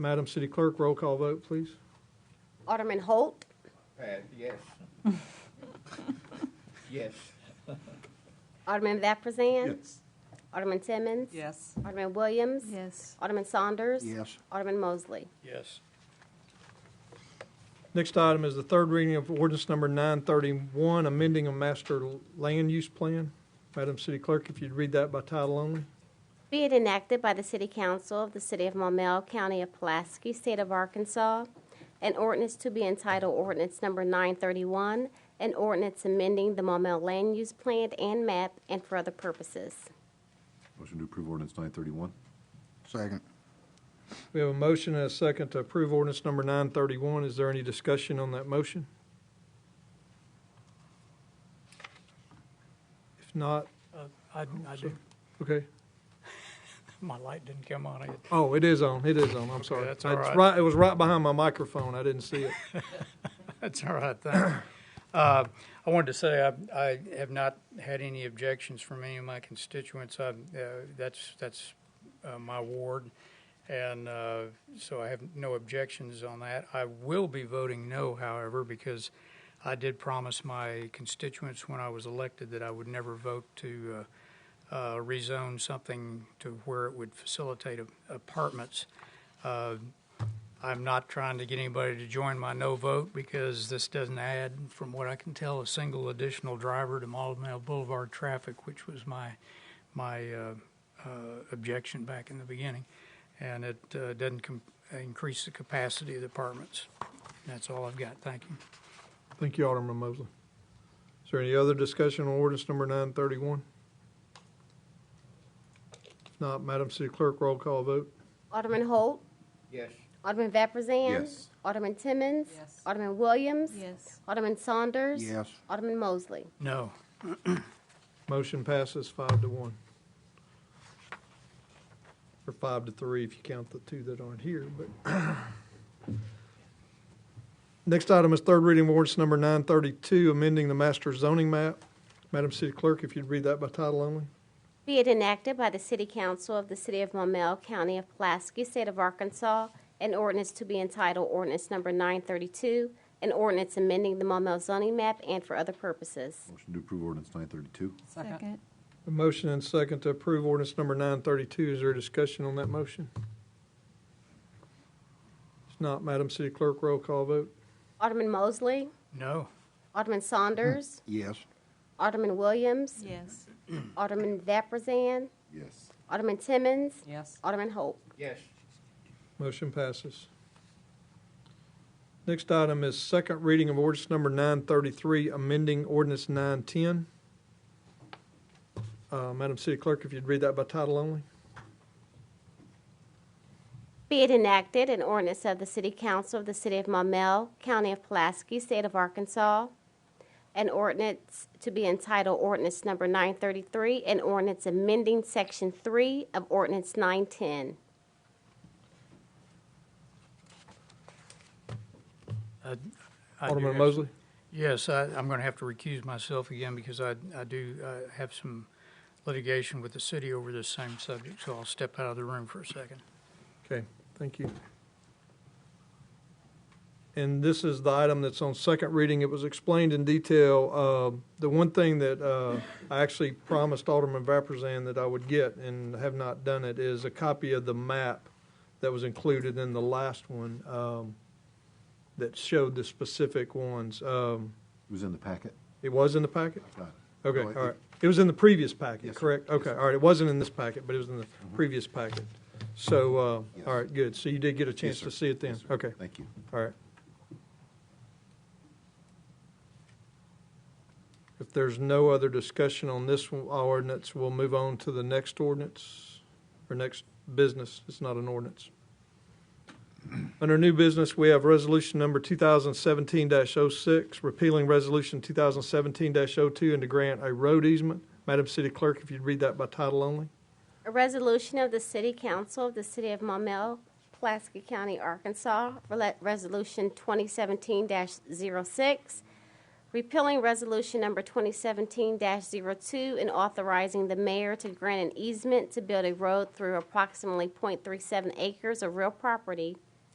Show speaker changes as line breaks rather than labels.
Madam City Clerk, roll call vote, please.
Alderman Holt,
Pat, yes. Yes.
Alderman Vapurzian, Alderman Timmons.
Yes.
Alderman Williams.
Yes.
Alderman Saunders.
Yes.
Alderman Mosley.
Yes.
Next item is the third reading of ordinance number 931, amending a master land use plan. Madam City Clerk, if you'd read that by title only.
Be it enacted by the City Council of the City of Maumelle, County of Pulaski, State of Arkansas, an ordinance to be entitled Ordinance Number 931, an ordinance amending the Maumelle Land Use Plan and Map and for other purposes.
Motion to approve ordinance 931?
Second.
We have a motion and a second to approve ordinance number 931. Is there any discussion on that motion? If not,
Uh, I, I do.
okay.
My light didn't come on yet.
Oh, it is on, it is on, I'm sorry.
that's all
It's
right.
It was right behind my microphone, I didn't see it.
That's all right. Thank you. Uh, I wanted to say I, I have not had any objections from any of my constituents. I, uh, that's that's uh, my ward, and uh, so I have no objections on that. I will be voting no, however, because I did promise my constituents when I was elected that I would never vote to. Uh, uh, rezone something to where it would facilitate a- apartments. Uh, I'm not trying to get anybody to join my no vote because this doesn't add, from what I can tell, a single additional driver to Maulville Boulevard traffic, which was my my uh, uh, objection back in the beginning, and it uh, doesn't com- increase the capacity of the apartments. That's all I've got. Thank you.
Thank you, Alderman Mosley. Is there any other discussion on ordinance number 931? If not, Madam City Clerk, roll call vote.
Alderman Holt,
Yes.
Alderman Vapurzian.
Yes.
Alderman Timmons.
Yes.
Alderman Williams.
Yes.
Alderman Saunders.
Yes.
Alderman Mosley.
No.
Motion passes five to one. Or five to three if you count the two that aren't here, but. Next item is third reading of ordinance number 932, amending the master zoning map. Madam City Clerk, if you'd read that by title only.
Be it enacted by the City Council of the City of Maumelle, County of Pulaski, State of Arkansas, an ordinance to be entitled Ordinance Number 932, an ordinance amending the Maumelle zoning map and for other purposes.
Motion to approve ordinance 932?
Second.
A motion and second to approve ordinance number 932. Is there a discussion on that motion? If not, Madam City Clerk, roll call vote.
Alderman Mosley,
No.
Alderman Saunders,
Yes.
Alderman Williams,
Yes.
Alderman Vapurzian,
Yes.
Alderman Timmons,
Yes.
Alderman Holt.
Yes.
Motion passes. Next item is second reading of ordinance number 933, amending ordinance 910. Uh, Madam City Clerk, if you'd read that by title only.
Be it enacted an ordinance of the City Council of the City of Maumelle, County of Pulaski, State of Arkansas, an ordinance to be entitled Ordinance Number 933, an ordinance amending Section 3 of Ordinance 910.
I do
Alderman
have-
Mosley?
Yes, I, I'm going to have to recuse myself again because I, I do uh, have some litigation with the city over this same subject, so I'll step out of the room for a second.
Okay, thank you. And this is the item that's on second reading. It was explained in detail. Uh, The one thing that uh, I actually promised Alderman Vapurzian that I would get and have not done it is a copy of the map that was included in the last one um, that showed the specific ones. Um,
It was in the packet?
It was in the packet?
Got it.
Okay,
No,
all
it-
right. It was in the previous packet,
Yes, sir.
correct?
Yes,
Okay,
sir. Mm-hmm.
all right. It wasn't in this packet, but it was in the previous packet. So, uh,
Yes.
all right, good. So you did get a chance
Yes,
to
sir.
see it then?
Yes, sir.
Okay,
Thank you.
all right. If there's no other discussion on this one- our ordinance, we'll move on to the next ordinance, or next business. It's not an ordinance. Under new business, we have resolution number 2017-06, repealing resolution 2017-02, and to grant a road easement. Madam City Clerk, if you'd read that by title only.
A resolution of the City Council of the City of Maumelle, Pulaski County, Arkansas, Rel- Resolution 2017-06, repealing Resolution Number 2017-02 and authorizing the mayor to grant an easement to build a road through approximately .37 acres of real property